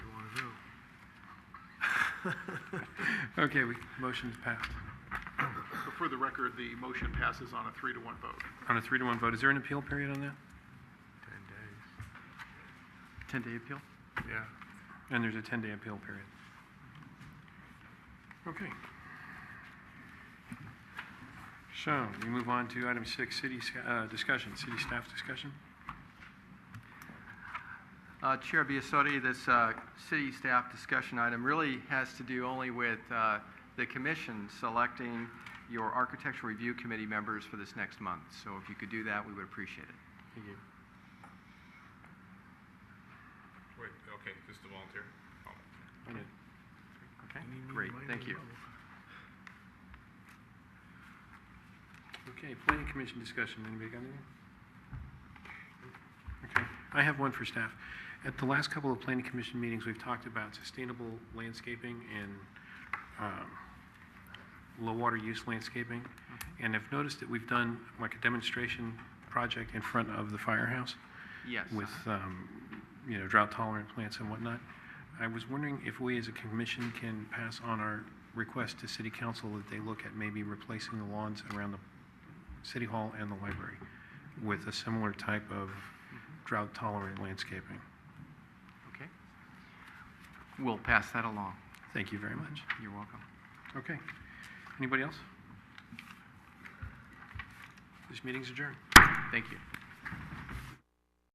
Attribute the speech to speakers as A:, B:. A: Okay, we, motion's passed.
B: So for the record, the motion passes on a three to one vote.
A: On a three to one vote, is there an appeal period on that?
C: 10-day appeal?
B: Yeah.
A: And there's a 10-day appeal period. Okay. So we move on to item six, city, s- uh, discussion, city staff discussion.
C: Uh, Chair Biasotti, this uh, city staff discussion item really has to do only with uh, the commission selecting your architectural review committee members for this next month. So if you could do that, we would appreciate it.
A: Thank you.
D: Wait, okay, just a volunteer. Oh.
A: On it.
C: Okay? Great, thank you.
A: Okay, planning commission discussion, anybody got anything? Okay, I have one for staff. At the last couple of planning commission meetings, we've talked about sustainable landscaping and um, low water use landscaping. And I've noticed that we've done like a demonstration project in front of the firehouse
C: Yes. uh,
A: with, um, you know, drought tolerant plants and whatnot. I was wondering if we as a commission can pass on our request to city council that they look at maybe replacing the lawns around the city hall and the library with a similar type of drought tolerant landscaping.
C: Okay. We'll pass that along.
A: Thank you very much.
C: You're welcome.
A: Okay. Anybody else? This meeting's adjourned.
C: Thank you.